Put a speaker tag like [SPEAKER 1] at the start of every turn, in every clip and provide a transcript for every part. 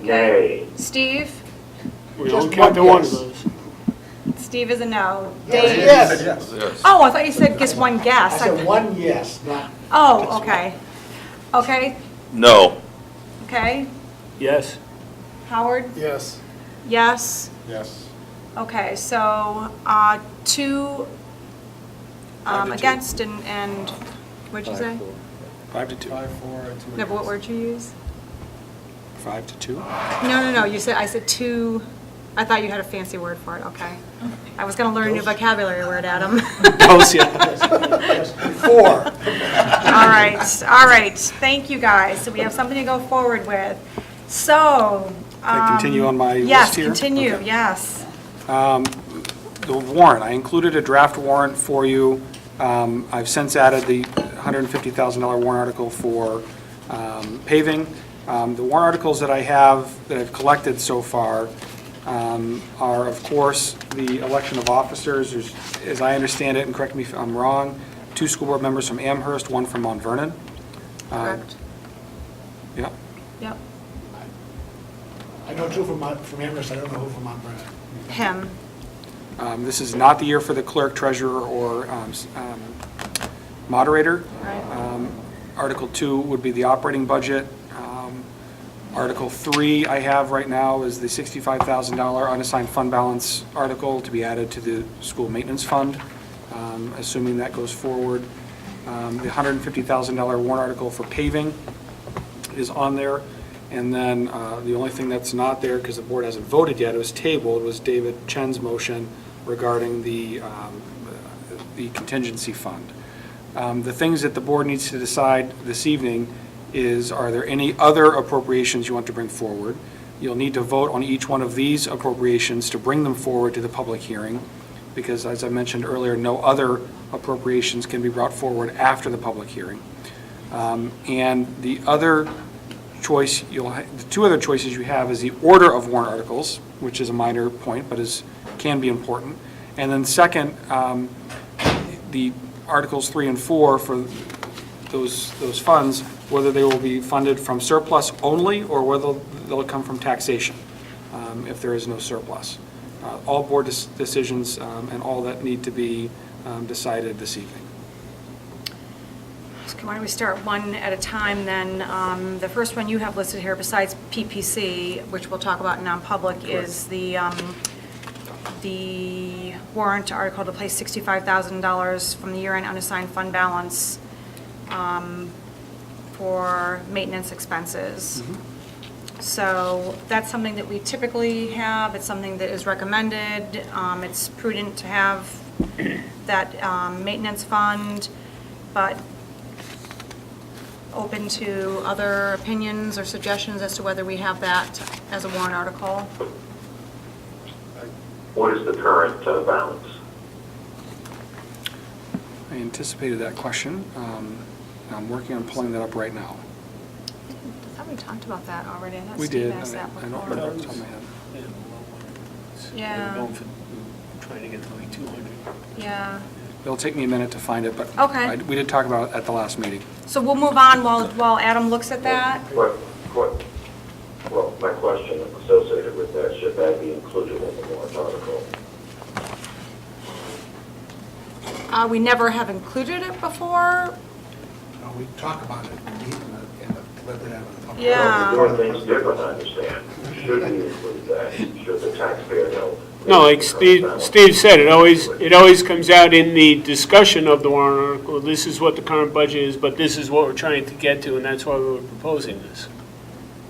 [SPEAKER 1] Nay.
[SPEAKER 2] Steve?
[SPEAKER 3] We
[SPEAKER 4] Just
[SPEAKER 3] don't count the
[SPEAKER 4] one
[SPEAKER 3] one of
[SPEAKER 4] yes.
[SPEAKER 3] those.
[SPEAKER 2] Steve is a no.
[SPEAKER 4] Yes.
[SPEAKER 2] Dave?
[SPEAKER 4] Yes.
[SPEAKER 5] Yes.
[SPEAKER 2] Oh, I thought you said just one
[SPEAKER 4] I
[SPEAKER 2] guess.
[SPEAKER 4] said one yes, not,
[SPEAKER 2] Oh, okay. Okay,
[SPEAKER 5] No.
[SPEAKER 2] okay.
[SPEAKER 3] Yes.
[SPEAKER 2] Howard?
[SPEAKER 6] Yes.
[SPEAKER 2] Yes.
[SPEAKER 6] Yes.
[SPEAKER 2] Okay, so, uh, two,
[SPEAKER 6] Five
[SPEAKER 2] um,
[SPEAKER 6] to two.
[SPEAKER 2] against and, and, what'd you say?
[SPEAKER 6] Five to two. Five, four, two.
[SPEAKER 2] No, but what word you use?
[SPEAKER 6] Five to two?
[SPEAKER 2] No, no, no, you said, I said two, I thought you had a fancy word for it, okay.
[SPEAKER 4] Oh.
[SPEAKER 2] I was gonna learn a new vocabulary word, Adam.
[SPEAKER 3] Those, yeah.
[SPEAKER 4] four.
[SPEAKER 2] Um, All right, all right, thank you guys, so we have something to go forward with. So, um,
[SPEAKER 6] I continue on my list
[SPEAKER 2] yes,
[SPEAKER 6] here?
[SPEAKER 2] continue,
[SPEAKER 6] Okay.
[SPEAKER 2] yes.
[SPEAKER 6] The warrant, I included a draft warrant for you. Um, I've since added the $150,000 warrant article for um, paving. Um, The warrant articles that I have, that I've collected so far, um, are, of course, the election of officers, There's- as I understand it, and correct me if I'm wrong, two school board members from Amherst, one from Mount Vernon. Um,
[SPEAKER 2] Correct,
[SPEAKER 6] Yeah.
[SPEAKER 2] yep,
[SPEAKER 4] I know two from, Mount- from Amherst, I don't know who from Mount Vernon.
[SPEAKER 2] him,
[SPEAKER 6] Um, This is not the year for the clerk, treasurer, or um, s- um, moderator.
[SPEAKER 2] right,
[SPEAKER 6] Um, Article two would be the operating budget. Um, Article three I have right now is the $65,000 unassigned fund balance article to be added to the school maintenance fund, um, assuming that goes forward. Um, The $150,000 warrant article for paving is on there. And then uh, the only thing that's not there, because the board hasn't voted yet, it was tabled, was David Chen's motion regarding the um, uh, the contingency fund. Um, The things that the board needs to decide this evening is, are there any other appropriations you want to bring forward? You'll need to vote on each one of these appropriations to bring them forward to the public hearing, because as I mentioned earlier, no other appropriations can be brought forward after the public hearing. Um, And the other choice, you'll, ha- the two other choices you have is the order of warrant articles, which is a minor point, but is, can be important. And then second, um, the Articles 3 and 4 for those, those funds, whether they will be funded from surplus only, or whether they'll come from taxation, um, if there is no surplus. Uh, All board dec- decisions um, and all that need to be um, decided this evening.
[SPEAKER 2] So Why don't we start one at a time, then? Um, The first one you have listed here, besides PPC, which we'll talk about in non-public, is the, um, the warrant article to place $65,000 from the year-end unassigned fund balance um, for maintenance expenses. So that's something that we typically have, it's something that is recommended, Um, it's prudent to have that um, maintenance fund, but open to other opinions or suggestions as to whether we have that as a warrant article.
[SPEAKER 1] What is the current uh, balance?
[SPEAKER 6] I anticipated that question. um, and I'm working on pulling that up right now.
[SPEAKER 2] I thought we talked about that already. I thought
[SPEAKER 6] We
[SPEAKER 2] Steve
[SPEAKER 6] did.
[SPEAKER 2] asked
[SPEAKER 6] I
[SPEAKER 2] that
[SPEAKER 6] I don't
[SPEAKER 2] before.
[SPEAKER 6] remember off the top of my head.
[SPEAKER 2] Yeah.
[SPEAKER 7] We're going for- we're Trying to get to like 200.
[SPEAKER 2] Yeah.
[SPEAKER 6] It'll take me a minute to find it, but.
[SPEAKER 2] Okay.
[SPEAKER 6] I- We did talk about it at the last meeting.
[SPEAKER 2] So we'll move on while, while Adam looks at that.
[SPEAKER 1] What, what, well, my question associated with that, should that be included in the warrant article?
[SPEAKER 2] Uh, we never have included it before.
[SPEAKER 4] No, we talk about it, we meet in the, in the, let it out in the public.
[SPEAKER 2] Yeah.
[SPEAKER 1] Well,
[SPEAKER 4] Um,
[SPEAKER 1] We're doing things different, I understand. Should we include that? Should the taxpayer know?
[SPEAKER 3] No, like Steve, Steve said, it always, it always comes out in the discussion of the warrant article, this is what the current budget is, but this is what we're trying to get to, and that's why we were proposing this.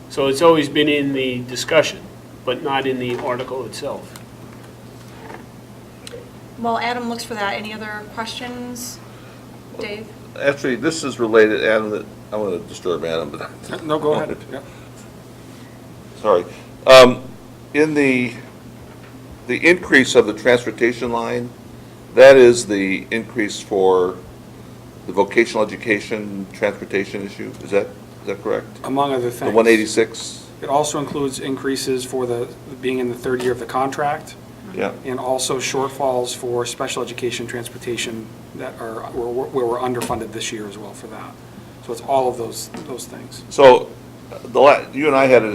[SPEAKER 3] So it's always been in the discussion, but not in the article itself.
[SPEAKER 2] While Adam looks for that, any other questions? Dave?
[SPEAKER 5] Actually, this is related, Adam, that, I want to disturb Adam, but.
[SPEAKER 6] No, go ahead. Yeah.
[SPEAKER 5] Sorry. Um, In the, the increase of the transportation line, that is the increase for the vocational education, transportation issue, is that, is that correct?
[SPEAKER 6] Among other
[SPEAKER 5] The
[SPEAKER 6] things.
[SPEAKER 5] 186?
[SPEAKER 6] It also includes increases for the, being in the third year of the contract,
[SPEAKER 5] Yeah.
[SPEAKER 6] and also shortfalls for special education transportation that are, where we're- where we're underfunded this year as well for that. So it's all of those, those things.
[SPEAKER 5] So, uh, the, la- you and I had a